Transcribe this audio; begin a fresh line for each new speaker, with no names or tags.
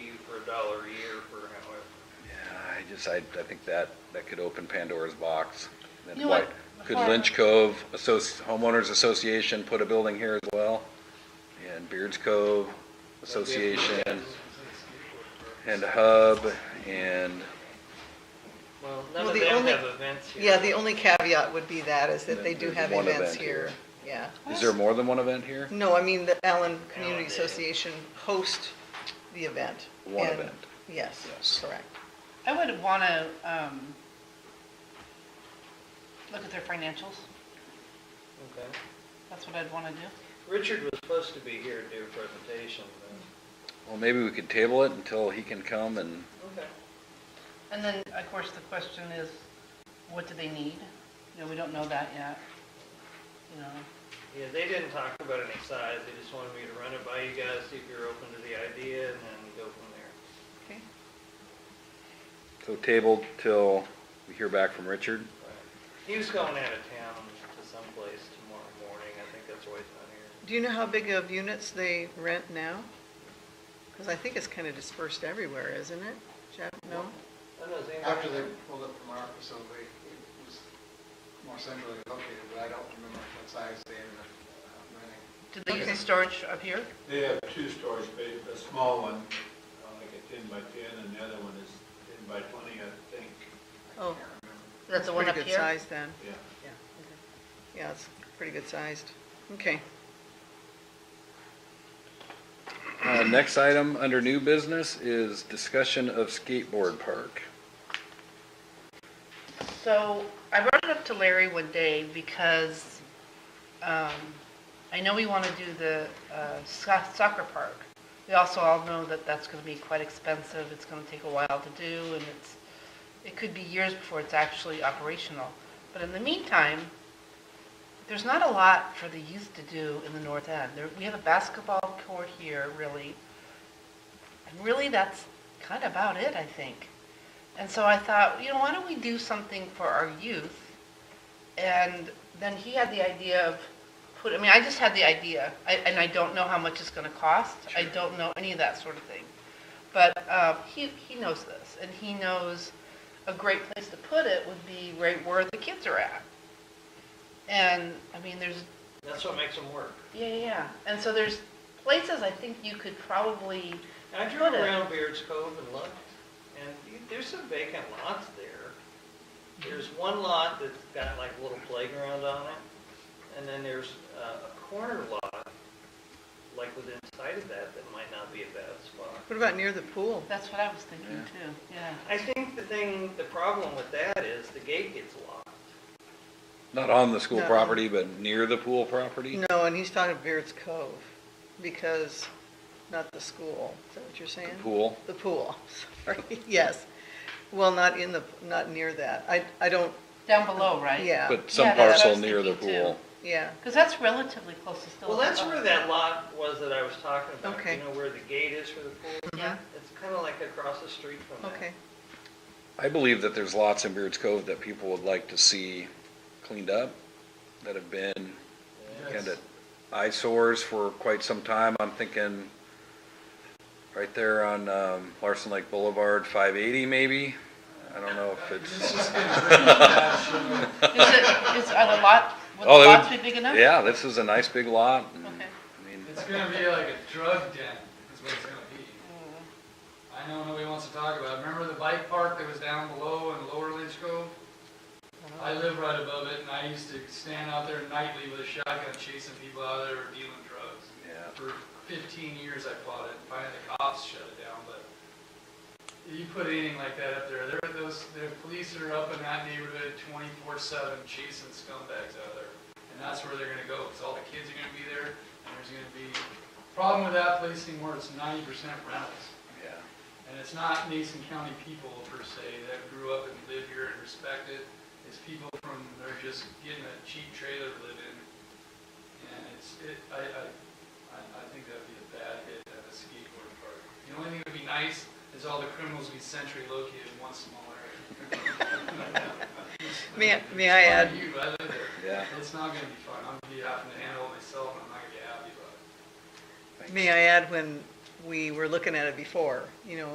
dollar a year for however.
Yeah, I just, I, I think that, that could open Pandora's box. Then
You know what?
why- Could Lynch Cove Associ, Homeowners Association put a building here as well? And Beards Cove Association, and Hub, and,
Well,
Well,
none of
the
them
only-
have events here.
Yeah, the only caveat would be that, is that they do
There's
have
one
events
event
here.
here.
Yeah.
is there more than one event here?
No, I mean, the Allen Community
Allen did.
Association hosts the event.
One
and-
event.
Yes,
Yes.
correct.
I would want to, um, look at their financials.
Okay.
That's what I'd want to do.
Richard was supposed to be here to do a presentation, but.
Well, maybe we could table it until he can come and,
Okay.
And then, of course, the question is, what do they need? You know, we don't know that yet. You know,
Yeah, they didn't talk about any size, they just wanted me to run it by you guys, see if you're open to the idea, and then go from there.
Okay.
so tabled till we hear back from Richard.
He was going out of town to someplace tomorrow morning, I think that's why he's not here.
Do you know how big of units they rent now? Because I think it's kind of dispersed everywhere, isn't it? Jeff, no?
I don't know, is anybody-
After they pulled up from our facility, it was more centrally located, but I don't remember what size they ended up renting.
do they use the storage up here?
They have two storage bays, a small one, uh, like a ten by ten, and the other one is ten by twenty, I think,
Oh,
That's the one up
pretty good
here?
size then.
yeah.
Yeah, it's pretty good sized. Okay.
Uh, next item under new business is discussion of skateboard park.
So I brought it up to Larry one day because, um, I know we want to do the, uh, so- soccer park. We also all know that that's going to be quite expensive. It's going to take a while to do and it's, it could be years before it's actually operational. But in the meantime, there's not a lot for the youth to do in the north end. There, we have a basketball court here, really. And really, that's kind of about it, I think. And so I thought, you know, why don't we do something for our youth? And then he had the idea of put, I mean, I just had the idea, I, and I don't know how much it's going to cost. I don't know any of that sort of thing. But uh, he, he knows this, and he knows a great place to put it would be right where the kids are at. And, I mean, there's
That's what makes them work.
yeah, yeah, yeah. And so there's places I think you could probably,
I drove
Put it-
around Beards Cove and looked, and you- there's some vacant lots there. There's one lot that's got like a little playground on it, and then there's uh, a corner lot, like within sight of that, that might not be a bad spot.
What about near the pool?
that's what I was thinking too, yeah.
I think the thing, the problem with that is the gate gets locked.
Not on the school
No. Mm-hmm.
property, but near the pool property?
No, and he's talking Beards Cove because, not the school. Is that what you're saying?
The pool?
The pool, sorry, yes. Well, not in the, not near that. I, I don't,
Down below, right?
yeah,
But some
Yeah, that's
parcel
what I was
near the
thinking too.
pool.
yeah.
Because that's relatively close to still.
Well, that's where that lot was that I was talking about.
Okay.
You know where the gate is for the pool?
Yeah.
It's kind of like across the street from that.
Okay,
I believe that there's lots in Beards Cove that people would like to see cleaned up, that have been kind of eyesores for quite some time. I'm thinking right there on um, Larson Lake Boulevard, 580 maybe? I don't know if it's,
Is it, is, are the lot, would
Oh,
the
it
lots be
would-
big enough?
yeah, this is a nice big lot. and,
Okay.
I mean,
It's gonna be like a drug den, is what it's gonna be. I know nobody wants to talk about it. Remember the bike park that was down below in Lower Lynch Grove? I live right above it, and I used to stand out there nightly with a shotgun chasing people out there dealing drugs.
Yeah.
For fifteen years I fought it, and finally the cops shut it down, but you put anything like that up there, there, those, the police are up in that neighborhood twenty-four seven chasing scumbags out of there. And that's where they're gonna go, because all the kids are gonna be there, and there's gonna be, problem with that place anymore, it's ninety percent rentals.
yeah.
And it's not Mason County people per se that grew up and live here and respect it. It's people from, they're just getting a cheap trailer to live in. And it's, it, I, I, I I think that'd be a bad hit at a skateboard park. The only thing that'd be nice is all the criminals be centrally located in one small area.
May I- may I add-
It's fine, You, I live there.
Yeah.
It's not gonna be fun. I'm gonna be having to handle it myself and I'm not gonna be happy about it.
thanks.
may I add, when we were looking at it before, you know,